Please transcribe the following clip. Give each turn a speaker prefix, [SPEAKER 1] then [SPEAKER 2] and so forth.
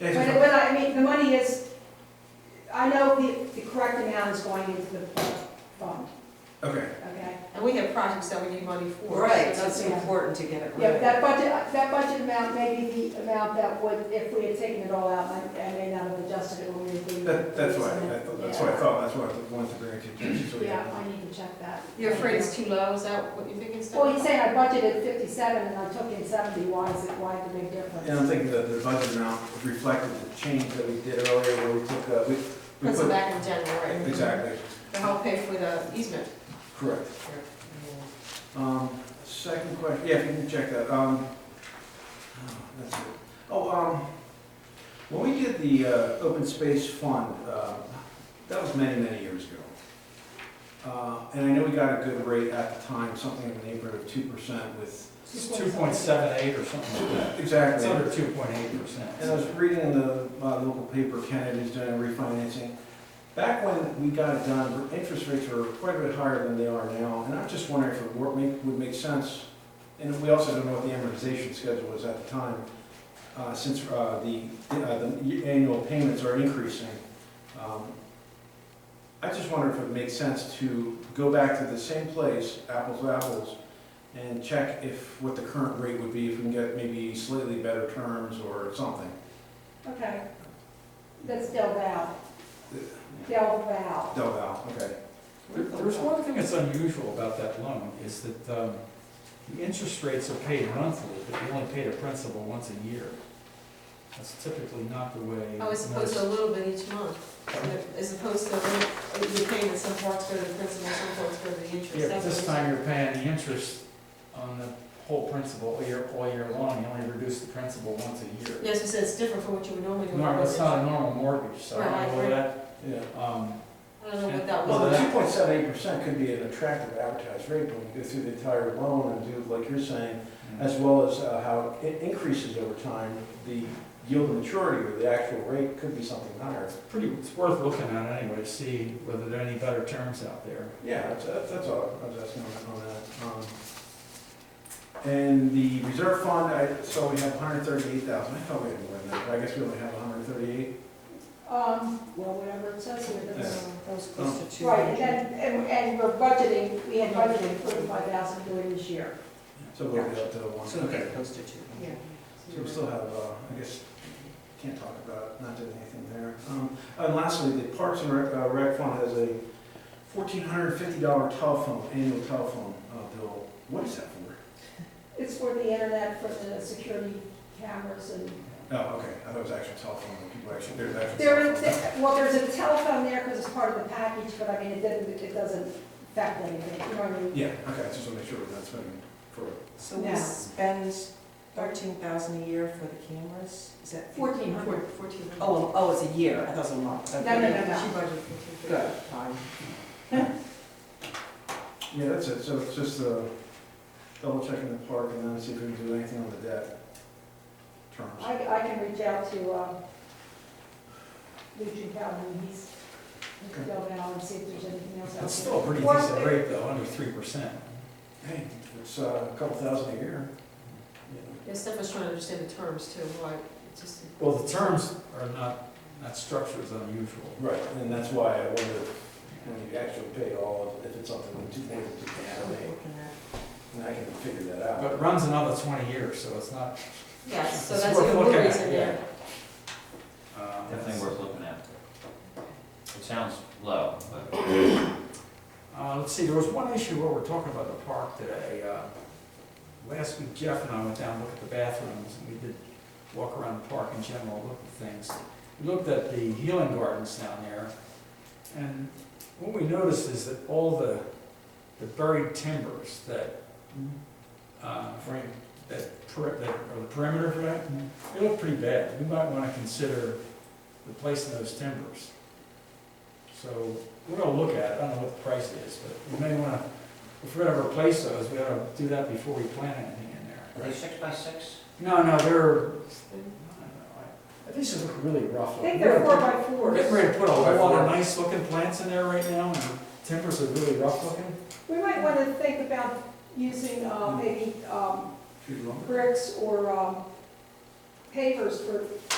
[SPEAKER 1] It's
[SPEAKER 2] When, when I, I mean, the money is, I know the, the correct amount is going into the fund,
[SPEAKER 1] Okay,
[SPEAKER 2] okay?
[SPEAKER 3] And we have projects that we need money for.
[SPEAKER 4] Right, so
[SPEAKER 3] so
[SPEAKER 4] it's
[SPEAKER 2] Yeah.
[SPEAKER 4] important to get it
[SPEAKER 2] Yeah, but
[SPEAKER 4] right.
[SPEAKER 2] that budget, that budget amount may be the amount that would, if we had taken it all out, I, I may not have adjusted it when we agreed.
[SPEAKER 1] that, that's why, I thought- that's why I thought, that's why I wanted to bring it to your attention, so we
[SPEAKER 2] Yeah,
[SPEAKER 1] have.
[SPEAKER 2] I need to check that.
[SPEAKER 3] You're afraid it's too low, is that what you're thinking, Steph?
[SPEAKER 2] Well, he's saying I budgeted fifty-seven and I took in seventy, why is it, why the big difference?
[SPEAKER 1] And I'm thinking that the budget amount reflected the change that we did earlier, where we took, uh, we, we
[SPEAKER 3] Puts it
[SPEAKER 1] put,
[SPEAKER 3] back in general, right?
[SPEAKER 1] exactly,
[SPEAKER 3] To help pay for the easement.
[SPEAKER 1] correct. Um, second question, yeah, if you can check that, um, oh, that's it. Oh, um, when we did the, uh, open space fund, uh, that was many, many years ago. Uh, and I know we got a good rate at the time, something in the neighborhood of two percent with,
[SPEAKER 5] It's two point seven eight or something like that. It's
[SPEAKER 1] exactly.
[SPEAKER 5] under two point eight
[SPEAKER 1] And I
[SPEAKER 5] percent.
[SPEAKER 1] was reading in the uh, local paper, Kennedy's doing a refinancing. Back when we got it done, interest rates were quite a bit higher than they are now, and I'm just wondering if it would make, would make sense. And we also don't know what the amortization schedule was at the time, uh, since uh, the, uh, the annual payments are increasing. Um, I just wonder if it makes sense to go back to the same place, apples to apples, and check if, what the current rate would be, if we can get maybe slightly better terms or something.
[SPEAKER 2] Okay. That's Del Val. Del Val.
[SPEAKER 1] Del Val, okay.
[SPEAKER 5] There's one thing that's unusual about that loan, is that, um, the interest rates are paid monthly, but you only pay the principal once a year. That's typically not the way.
[SPEAKER 3] Oh, as opposed to a
[SPEAKER 5] most-
[SPEAKER 3] little bit each month, as opposed to, you pay that some parts go to the principal, some parts go to the interest.
[SPEAKER 5] Yeah, but
[SPEAKER 3] That's
[SPEAKER 5] this
[SPEAKER 3] what
[SPEAKER 5] time you're paying the interest on the whole principal all year, all year long, you only reduce the principal once a year.
[SPEAKER 3] Yes, you said it's different from what you would normally do.
[SPEAKER 5] Normal, it's not a normal mortgage, so I don't know
[SPEAKER 3] Right,
[SPEAKER 5] that,
[SPEAKER 1] Yeah.
[SPEAKER 5] um,
[SPEAKER 3] I don't know what that
[SPEAKER 1] Well, the
[SPEAKER 3] was.
[SPEAKER 1] two point seven eight percent could be an attractive advertised rate when you go through the entire loan and do, like you're saying, as well as uh, how it increases over time, the yield to maturity or the actual rate could be something higher.
[SPEAKER 5] pretty, it's worth looking at anyway, to see whether there are any better terms out there.
[SPEAKER 1] Yeah, that's, that's that's all I was asking on on that. Um, And the reserve fund, I, so we have hundred thirty-eight thousand, I thought we had more than that, but I guess we only have hundred thirty-eight.
[SPEAKER 2] Um, well, whatever it says here, that's.
[SPEAKER 4] Those close to two
[SPEAKER 2] Right, and
[SPEAKER 4] hundred.
[SPEAKER 2] then, and, and we're budgeting, we had budgeted forty-five thousand for it this year.
[SPEAKER 1] So we'll be up to one.
[SPEAKER 4] So we close to two.
[SPEAKER 3] Yeah.
[SPEAKER 1] So we still have, uh, I guess, can't talk about not doing anything there. Um, And lastly, the Parks and Rec- uh, Rec Fund has a fourteen hundred and fifty dollar telephone, annual telephone uh, bill. What is that for?
[SPEAKER 2] It's for the internet, for the security cameras and,
[SPEAKER 1] Oh, okay, I thought it was actual telephone, that people actually, there's actual.
[SPEAKER 2] there is,
[SPEAKER 1] telephone.
[SPEAKER 2] well, there's a telephone there because it's part of the package, but I mean, it didn't, it doesn't affect anything, you know what I mean?
[SPEAKER 1] Yeah, okay, I just want to make sure we're not spending for,
[SPEAKER 4] So we
[SPEAKER 2] Yeah.
[SPEAKER 4] spend thirteen thousand a year for the cameras? Is that?
[SPEAKER 2] Fourteen
[SPEAKER 3] Four-
[SPEAKER 2] hundred.
[SPEAKER 3] Fourteen hundred.
[SPEAKER 4] Oh, oh, it's a year, I thought it was a month.
[SPEAKER 2] No, no,
[SPEAKER 4] Okay.
[SPEAKER 2] no, no.
[SPEAKER 3] She budgeted fourteen fifty.
[SPEAKER 4] Good, fine.
[SPEAKER 1] yeah, that's it, so it's just uh, double checking the park and then see if we can do anything on the debt terms.
[SPEAKER 2] I, I can reach out to, um, Lucian Calhoun, he's, he's
[SPEAKER 1] Okay.
[SPEAKER 2] going out and see if there's anything else. out
[SPEAKER 5] That's
[SPEAKER 2] there.
[SPEAKER 5] still a pretty
[SPEAKER 2] Or-
[SPEAKER 5] decent rate though, under three percent.
[SPEAKER 1] Hey, it's uh, a couple thousand a year. you know.
[SPEAKER 3] Yeah, Steph was trying to understand the terms too, why, it's just,
[SPEAKER 5] Well, the terms are not, that structure is unusual.
[SPEAKER 1] Right, and that's why I wonder when you actually pay all, if it's something like two point
[SPEAKER 4] Looking
[SPEAKER 1] two percent,
[SPEAKER 4] at-
[SPEAKER 1] and I can figure that out.
[SPEAKER 5] But it runs another twenty years, so it's not,
[SPEAKER 3] yes, so
[SPEAKER 5] It's
[SPEAKER 3] that's
[SPEAKER 5] worth
[SPEAKER 3] even more
[SPEAKER 5] looking at,
[SPEAKER 3] reason,
[SPEAKER 5] yeah.
[SPEAKER 3] yeah.
[SPEAKER 5] um,
[SPEAKER 6] Definitely worth looking at. It sounds low, but
[SPEAKER 5] Uh, let's see, there was one issue where we're talking about the park today. Uh, Last week Jeff and I went down, and looked at the bathrooms, and we did walk around the park in general, look at things. We looked at the healing gardens down there, and what we noticed is that all the, the buried timbers that, uh, frame, that, per- that, or the perimeter for that, they look pretty bad. We might wanna consider replacing those timbers. So, we're gonna look at it, I don't know what the price is, but we may wanna, if we're gonna replace those, we ought to do that before we plant anything in there.
[SPEAKER 6] are they six by six?
[SPEAKER 5] No, no, they're, I don't know, I, these look really rough.
[SPEAKER 2] I think they're four by
[SPEAKER 5] We're getting
[SPEAKER 2] fours.
[SPEAKER 5] ready to put a whole lot of nice looking plants in there right now, and the timbers are really rough looking.
[SPEAKER 2] We might want to think about using,
[SPEAKER 5] Hmm.
[SPEAKER 2] uh, maybe, um,
[SPEAKER 1] Too long?
[SPEAKER 2] bricks or, um, uh, pavers for